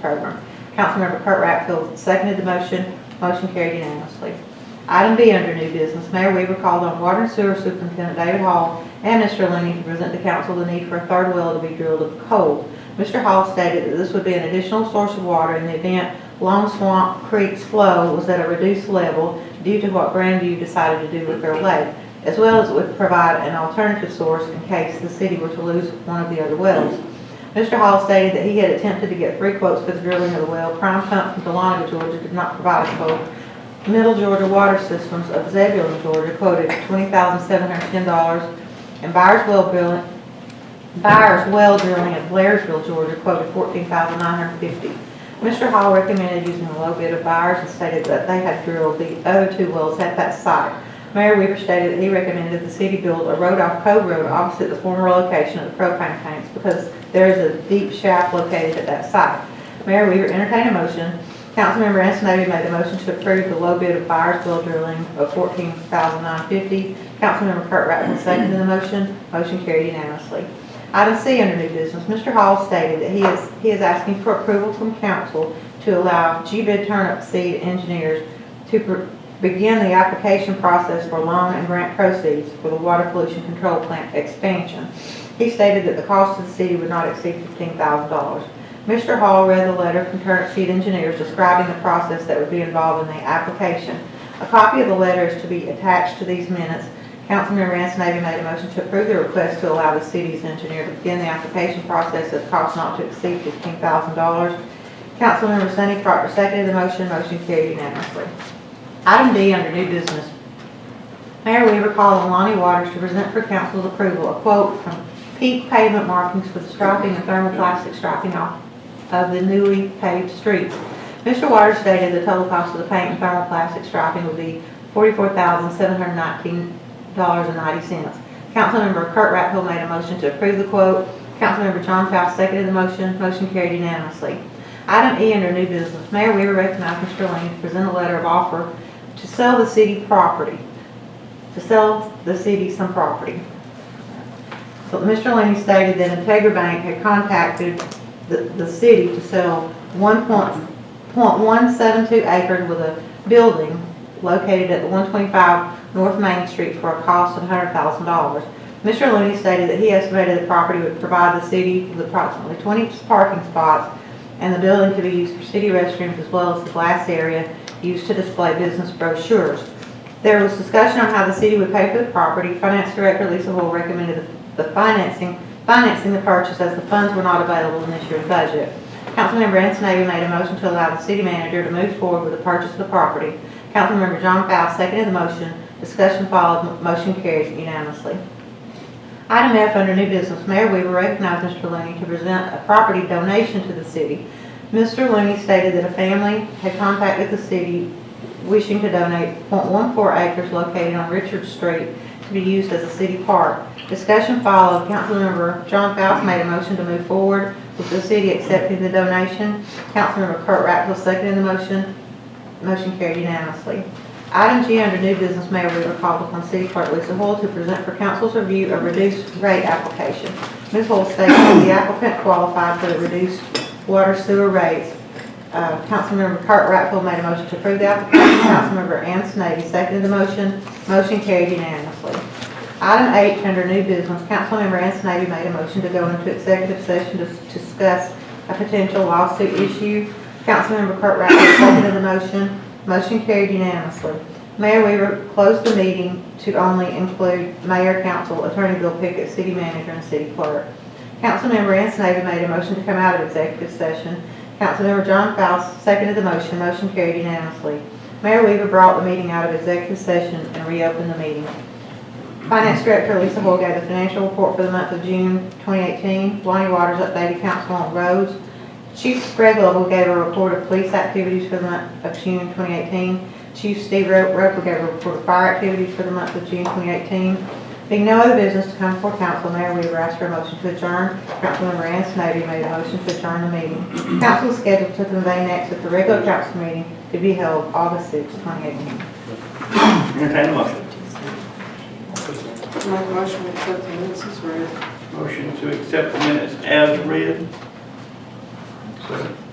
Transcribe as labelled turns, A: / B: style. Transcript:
A: program. Councilmember Kurt Rattfield seconded the motion. Motion carried unanimously. Item B under new business, Mayor Weaver called on Water and Sewer Superintendent David Hall and Mr. Lenny to present to council the need for a third well to be drilled of coal. Mr. Hall stated that this would be an additional source of water in the event Long Swamp Creek's flow was at a reduced level due to what Grandview decided to do with their lake, as well as it would provide an alternative source in case the city were to lose one of the other wells. Mr. Hall stated that he had attempted to get three quotes for the drilling of the well. Prime Pump from Delaware, Georgia did not provide a quote. Middle Georgia Water Systems of Zebulon, Georgia quoted $20,710. And Byers Well Drilling, Byers Well Drilling of Blairsville, Georgia quoted $14,950. Mr. Hall recommended using a low bid of Byers and stated that they had drilled the other two wells at that site. Mayor Weaver stated that he recommended that the city build a road off Cove Road opposite the former location of the propane tanks because there is a deep shaft located at that site. Mayor Weaver entertained a motion. Councilmember Antonetti made the motion to approve the low bid of Byers Well Drilling of fourteen thousand nine fifty. Councilmember Kurt Rattfield seconded the motion. Motion carried unanimously. Item C under new business, Mr. Hall stated that he is, he is asking for approval from council to allow G-Bid Turnip Seed Engineers to pr- begin the application process for loan and grant proceeds for the water pollution control plant expansion. He stated that the cost to the city would not exceed fifteen thousand dollars. Mr. Hall read the letter from Turnip Seed Engineers describing the process that would be involved in the application. A copy of the letter is to be attached to these minutes. Councilmember Antonelli made a motion to approve the request to allow the city's engineer to begin the application process at a cost not to exceed fifteen thousand dollars. Councilmember Sonny Crockett seconded the motion. Motion carried unanimously. Item D under new business. Mayor Weaver called on Lonnie Waters to present for council's approval a quote from peak pavement markings for the striping and thermoplastic striping off of the newly paved streets. Mr. Waters stated the total cost of the paint and thermoplastic striping would be forty-four thousand, seven hundred nineteen dollars and ninety cents. Councilmember Kurt Rattfield made a motion to approve the quote. Councilmember John Faust seconded the motion. Motion carried unanimously. Item E under new business, Mayor Weaver recognized Mr. Lane to present a letter of offer to sell the city property, to sell the city some property. So Mr. Laney stated that Integra Bank had contacted the, the city to sell one point, point one seven two acres with a building located at the one twenty-five North Main Street for a cost of hundred thousand dollars. Mr. Looney stated that he estimated the property would provide the city with approximately twenty parking spots, and the building could be used for city restrooms as well as the glass area used to display business brochures. There was discussion on how the city would pay for the property. Finance Director Lisa Hoyle recommended the financing, financing the purchase as the funds were not available in this year's budget. Councilmember Antonelli made a motion to allow the city manager to move forward with the purchase of the property. Councilmember John Faust seconded the motion. Discussion followed. M- Motion carries unanimously. Item F under new business, Mayor Weaver recognized Mr. Looney to present a property donation to the city. Mr. Looney stated that a family had contacted the city wishing to donate .14 acres located on Richard Street to be used as a city park. Discussion followed. Councilmember John Faust made a motion to move forward with the city accepting the donation. Councilmember Kurt Rattfield seconded the motion. Motion carried unanimously. Item G under new business, Mayor Weaver called upon City Clerk Lisa Hoyle to present for council's review a reduced rate application. Ms. Hoyle stated that the applicant qualified for the reduced water sewer rates. Uh, Councilmember Kurt Rattfield made a motion to approve the application. Councilmember Ann Snavy seconded the motion. Motion carried unanimously. Item H under new business, Councilmember Ann Snavy made a motion to go into executive session to to discuss a potential lawsuit issue. Councilmember Kurt Rattfield seconded the motion. Motion carried unanimously. Mayor Weaver closed the meeting to only include mayor, council, attorney Bill Pickett, city manager, and city clerk. Councilmember Ansonovi made a motion to come out of executive session. Councilmember John Faust seconded the motion. Motion carried unanimously. Mayor Weaver brought the meeting out of executive session and reopened the meeting. Finance Director Lisa Hoyle gave the financial report for the month of June 2018. Lonnie Waters updated council on roads. Chief Greg Lovell gave a report of police activities for the month of June 2018. Chief Steve Ro- Roper gave a report of fire activities for the month of June 2018. Being no other business to come before council, Mayor Weaver asked for a motion to adjourn. Councilmember Ansonovi made a motion to adjourn the meeting. Council is scheduled to convene next at the regular council meeting to be held August 6, 2018.
B: Entertain a motion.
C: Make a motion to accept the minutes as read.
B: Motion to accept the minutes as read.
D: Second.